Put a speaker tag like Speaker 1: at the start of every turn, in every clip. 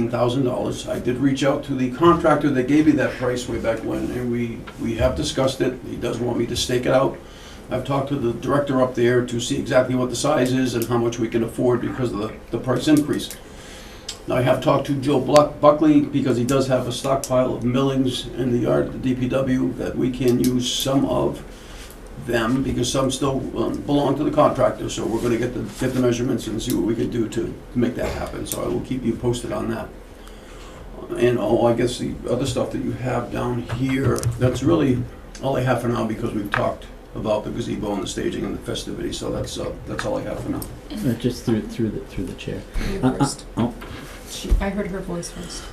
Speaker 1: $15,000. I did reach out to the contractor that gave me that price way back when, and we, we have discussed it. He does want me to stake it out. I've talked to the director up there to see exactly what the size is and how much we can afford because of the, the price increase. Now, I have talked to Joe Buck- Buckley because he does have a stockpile of millings in the yard at the DPW that we can use some of them because some still um, belong to the contractor. So we're going to get the, get the measurements and see what we can do to to make that happen. So I will keep you posted on that. And oh, I guess the other stuff that you have down here, that's really all I have for now because we've talked about the gazebo and the staging and the festivities. So that's, uh, that's all I have for now.
Speaker 2: Uh, just through through the through the chair.
Speaker 3: You
Speaker 2: Uh, uh,
Speaker 3: first.
Speaker 2: oh.
Speaker 3: She- I heard her voice first.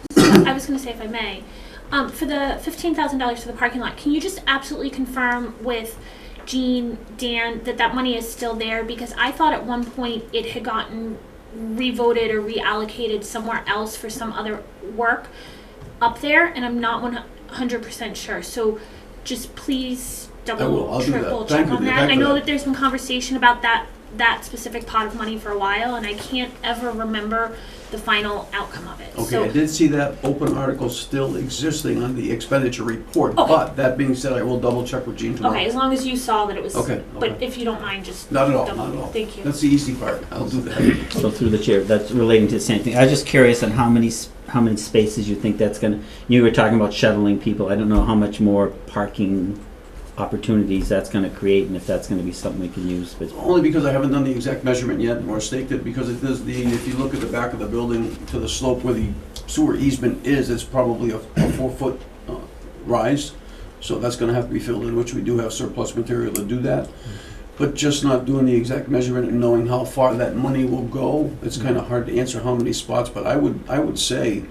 Speaker 4: I was going to say, if I may, um, for the fifteen thousand dollars for the parking lot, can you just absolutely confirm with Jean, Dan, that that money is still there? Because I thought at one point it had gotten revoted or reallocated somewhere else for some other work up there, and I'm not one hundred percent sure. So, just please double,
Speaker 1: I will. I'll do that.
Speaker 4: triple
Speaker 1: Thank
Speaker 4: check
Speaker 1: you,
Speaker 4: on
Speaker 1: dear.
Speaker 4: that.
Speaker 1: Thank
Speaker 4: I
Speaker 1: you.
Speaker 4: know that there's been conversation about that that specific pot of money for a while, and I can't ever remember the final outcome of it.
Speaker 1: Okay,
Speaker 4: so,
Speaker 1: I did see that open article still existing on the expenditure report,
Speaker 4: Okay.
Speaker 1: but that being said, I will double check with Gene
Speaker 4: Okay,
Speaker 1: tomorrow.
Speaker 4: as long as you saw that it was,
Speaker 1: Okay,
Speaker 4: but
Speaker 1: okay.
Speaker 4: if you don't mind, just.
Speaker 1: Not at all,
Speaker 4: double-
Speaker 1: not at all.
Speaker 4: Thank you.
Speaker 1: That's the easy part. I'll do that.
Speaker 2: So through the chair, that's relating to the same thing. I was just curious on how many s- how many spaces you think that's gonna. You were talking about shuttling people. I don't know how much more parking opportunities that's gonna create, and if that's gonna be something we can use. But
Speaker 1: Only because I haven't done the exact measurement yet or staked it, because it does the, if you look at the back of the building to the slope where the sewer easement is, it's probably a a four-foot uh, rise. So that's gonna have to be filled in, which we do have surplus material to do that. But just not doing the exact measurement and knowing how far that money will go, it's kinda hard to answer how many spots, but I would, I would say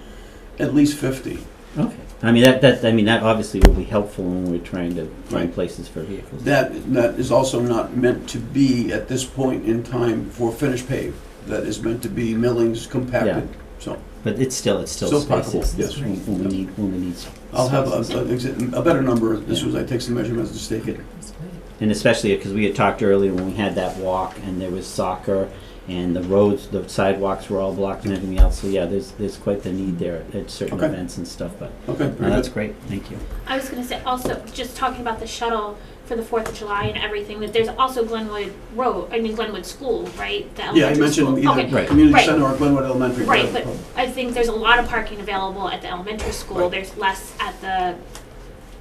Speaker 1: at least fifty.
Speaker 2: okay, I mean that that I mean that obviously will be helpful when we're trying to find
Speaker 1: Right.
Speaker 2: places for vehicles.
Speaker 1: That, that is also not meant to be at this point in time for finished pave. That is meant to be millings compacted, so.
Speaker 2: but it's still it's still,
Speaker 1: Still possible,
Speaker 2: spaces
Speaker 1: yes.
Speaker 2: when, when we need when we need.
Speaker 1: I'll have
Speaker 2: spaces.
Speaker 1: a, a, exa- a better number, this was, I take some measurements to stake it.
Speaker 3: That's great.
Speaker 2: and especially because we had talked earlier when we had that walk and there was soccer and the roads, the sidewalks were all blocked and everything else. So yeah, there's there's quite the need there at certain
Speaker 1: Okay.
Speaker 2: events and stuff. But
Speaker 1: Okay,
Speaker 2: no,
Speaker 1: very
Speaker 2: that's
Speaker 1: good.
Speaker 2: great. Thank you.
Speaker 4: I was gonna say also, just talking about the shuttle for the Fourth of July and everything, that there's also Glenwood Road, I mean Glenwood School, right? The
Speaker 1: Yeah, I
Speaker 4: elementary
Speaker 1: mentioned
Speaker 4: school.
Speaker 1: either
Speaker 4: Okay,
Speaker 2: Right.
Speaker 1: community
Speaker 4: Right.
Speaker 1: center or Glenwood Elementary.
Speaker 4: right, but
Speaker 1: whatever.
Speaker 4: I think there's a lot of parking available at the elementary school,
Speaker 1: Right.
Speaker 4: there's less at the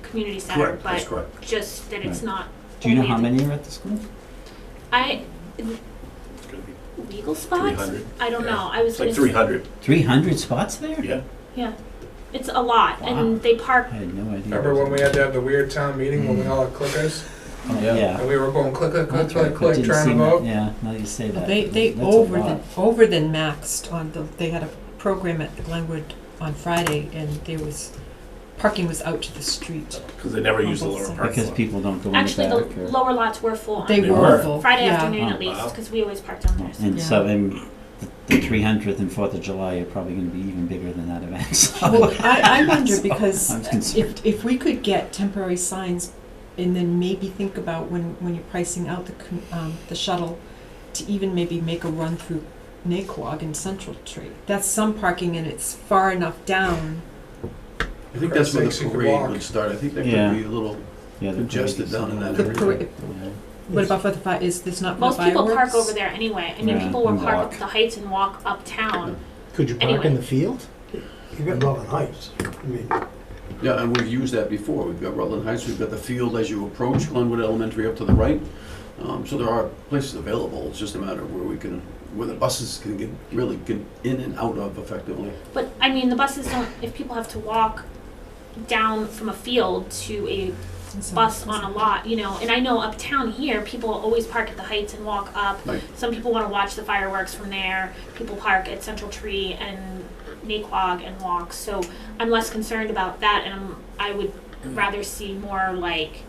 Speaker 4: community center,
Speaker 1: Correct, that's
Speaker 4: but
Speaker 1: correct.
Speaker 4: just that it's
Speaker 2: Right.
Speaker 4: not.
Speaker 2: Do you know
Speaker 4: only
Speaker 2: how
Speaker 4: at the-
Speaker 2: many are at the school?
Speaker 4: I, legal spots?
Speaker 5: 300.
Speaker 4: I don't
Speaker 5: Yeah.
Speaker 4: know, I was
Speaker 5: It's
Speaker 4: gonna.
Speaker 5: like
Speaker 4: s-
Speaker 5: three hundred.
Speaker 2: Three hundred spots there?
Speaker 5: Yeah.
Speaker 4: Yeah, it's a lot,
Speaker 2: Wow.
Speaker 4: and they park
Speaker 2: I had no idea.
Speaker 6: Remember when we had to have the weird town meeting when we all had clickers?
Speaker 2: Oh,
Speaker 5: Yeah.
Speaker 2: yeah.
Speaker 6: And we were going click, click, click,
Speaker 2: That's right,
Speaker 6: click,
Speaker 2: that
Speaker 6: click,
Speaker 2: didn't
Speaker 6: trying to
Speaker 2: seem that-
Speaker 6: vote?
Speaker 2: Yeah, now you say that.
Speaker 3: They, they
Speaker 2: That's a
Speaker 3: over
Speaker 2: lot.
Speaker 3: than, over than maxed on the, they had a program at the Glenwood on Friday and there was, parking was out to the street.
Speaker 5: Because they never use the lower parking lot.
Speaker 2: because people don't go
Speaker 4: Actually,
Speaker 2: in
Speaker 4: the
Speaker 2: the back. or-
Speaker 4: lower lots were full on
Speaker 3: They
Speaker 5: They
Speaker 3: were
Speaker 5: were.
Speaker 3: full,
Speaker 4: Friday
Speaker 3: yeah.
Speaker 4: afternoon
Speaker 2: Oh,
Speaker 4: at least,
Speaker 5: wow.
Speaker 4: because we always parked down there. So.
Speaker 2: and
Speaker 3: Yeah.
Speaker 2: so then the three hundredth and Fourth of July are probably going to be even bigger than that event. So.
Speaker 3: Well, I, I
Speaker 2: So,
Speaker 3: wonder because
Speaker 2: I'm concerned.
Speaker 3: if, if we could get temporary signs and then maybe think about when, when you're pricing out the, com- um, the shuttle to even maybe make a run through Naquag and Central Tree. That's some parking and it's far enough down.
Speaker 1: I think that's where
Speaker 6: Christ sakes,
Speaker 1: the
Speaker 6: you could
Speaker 1: parade
Speaker 6: walk.
Speaker 1: would start. I think that
Speaker 2: Yeah.
Speaker 1: could be a little,
Speaker 2: yeah, the
Speaker 1: congested
Speaker 2: parade is
Speaker 1: down in that
Speaker 2: somewhere.
Speaker 3: The
Speaker 1: Everything.
Speaker 3: parade,
Speaker 2: Yeah.
Speaker 3: what about for the fi- is there's not
Speaker 4: Most
Speaker 3: fireworks?
Speaker 4: people park over there anyway. I mean,
Speaker 2: Yeah,
Speaker 4: people will
Speaker 2: and
Speaker 4: park
Speaker 2: walk.
Speaker 4: up the heights and walk uptown.
Speaker 7: Could you park
Speaker 4: Anyway.
Speaker 7: in the field? You've got Rutland Heights. I mean,
Speaker 1: yeah, and we've used that before. We've got Rutland Heights, we've got the field as you approach Glenwood Elementary up to the right. Um, so there are places available. It's just a matter of where we can, where the buses can get, really get in and out of effectively.
Speaker 4: But I mean, the buses don't. If people have to walk down from a field to a
Speaker 3: So-
Speaker 4: bus on a lot, you know. And I know uptown here, people always park at the heights and walk up.
Speaker 1: Right.
Speaker 4: Some people want to watch the fireworks from there. People park at Central Tree and Naquag and walk. So I'm less concerned about that, and I'm, I would rather see more like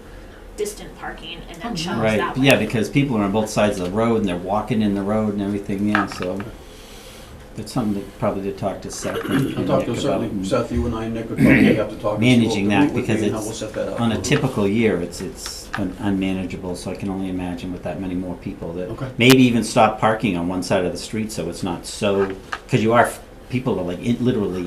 Speaker 4: distant parking and then shuttles
Speaker 2: Right.
Speaker 4: Oh, that way.
Speaker 2: Yeah, because people are on both sides of the road and they're walking in the road and everything. Yeah, so it's something to probably to talk to Seth and,
Speaker 1: I'll
Speaker 2: and
Speaker 1: talk to
Speaker 2: Nick
Speaker 1: certainly,
Speaker 2: about.
Speaker 1: Seth, you and I, and Nick would probably have to talk. and see what
Speaker 2: Managing
Speaker 1: the
Speaker 2: that
Speaker 1: route would be
Speaker 2: because
Speaker 1: and how
Speaker 2: it's
Speaker 1: we'll set that up.
Speaker 2: On a typical year, it's it's un- unmanageable. So I can only imagine with that many more people that
Speaker 1: Okay.
Speaker 2: maybe even stop parking on one side of the street so it's not so because you are f- people are like in, literally